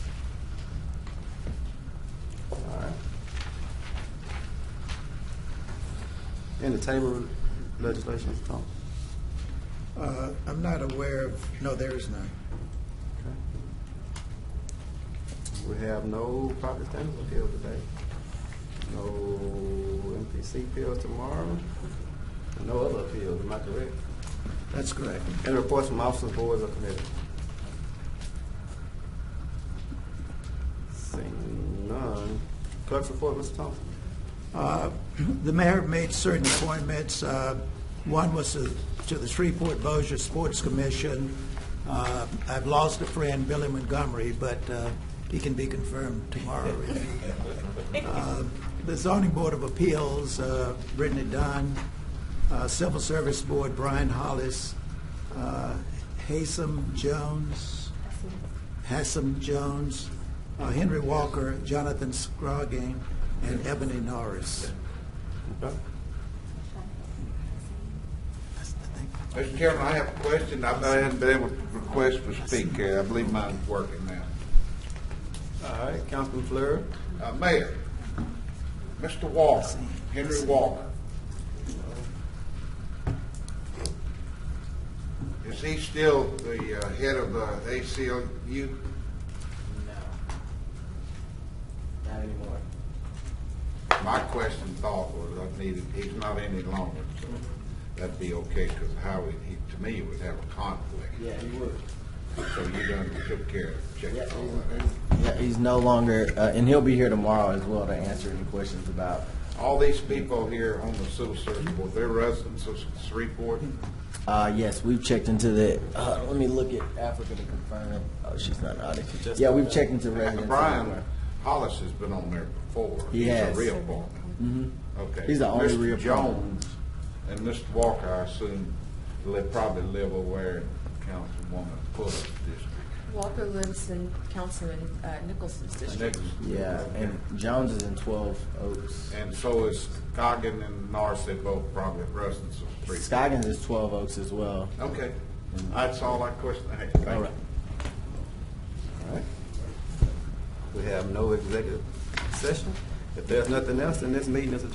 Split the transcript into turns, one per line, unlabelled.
entertainment legislation, Tom?
Uh, I'm not aware of, no, there is none.
We have no property standards appeal today, no MPC appeals tomorrow, and no other appeals, am I correct?
That's correct.
Any reports from officers, boards, or committees? Seeing none. Clerk's report, Mr. Thompson.
Uh, The mayor made certain appointments. Uh, One was to to the Shreveport Bossier Sports Commission. Uh, I've lost a friend, Billy Montgomery, but uh, he can be confirmed tomorrow. Uh, The Zoning Board of Appeals, uh, Brittany Dunn. Uh, Civil Service Board, Brian Hollis. Uh, Hasem Jones, Hassan Jones, uh, Henry Walker, Jonathan Scroggin, and Ebony Norris.
Okay.
That's the thing.
Mr. Chairman, I have a question. I've not been able to request to speak. Uh, I believe mine's working now.
All right, Councilman Fleur.
Uh, Mayor, Mr. Walker, Henry Walker. Is he still the uh, head of uh, ACLU?
No. Not anymore.
My question thought was I needed, he's not any longer, so that'd be okay, because how he, he- to me, would have a conflict.
Yeah, he would.
So you done took care of, checked
Yeah,
all
he's-
that out.
he's, yeah, he's no longer, uh, and he'll be here tomorrow as well to answer any questions about,
All these people here on the civil service board, they're residents of Shreveport.
uh, yes, we've checked into the, uh, let me look at Africa to confirm it. Oh, she's not out of Yeah, we've checked into residents.
Brian Hollis has been on there before.
He has.
He's a real partner. Okay.
He's the only
Mr.
real partner.
Jones and Mr. Walker, I assume, they probably live over in Councilwoman Fuller's district.
Walker lives in Councilman uh, Nicholson's district.
Next-
Yeah, and Jones is in twelve Oaks.
And so is Coggin and Norris, they both probably residents of Shreveport.
Scoggins is twelve Oaks as well.
Okay, that's all I question I had. Thank you.
All right.
All right. We have no executive session. If there's nothing else, then this meeting is adjourned.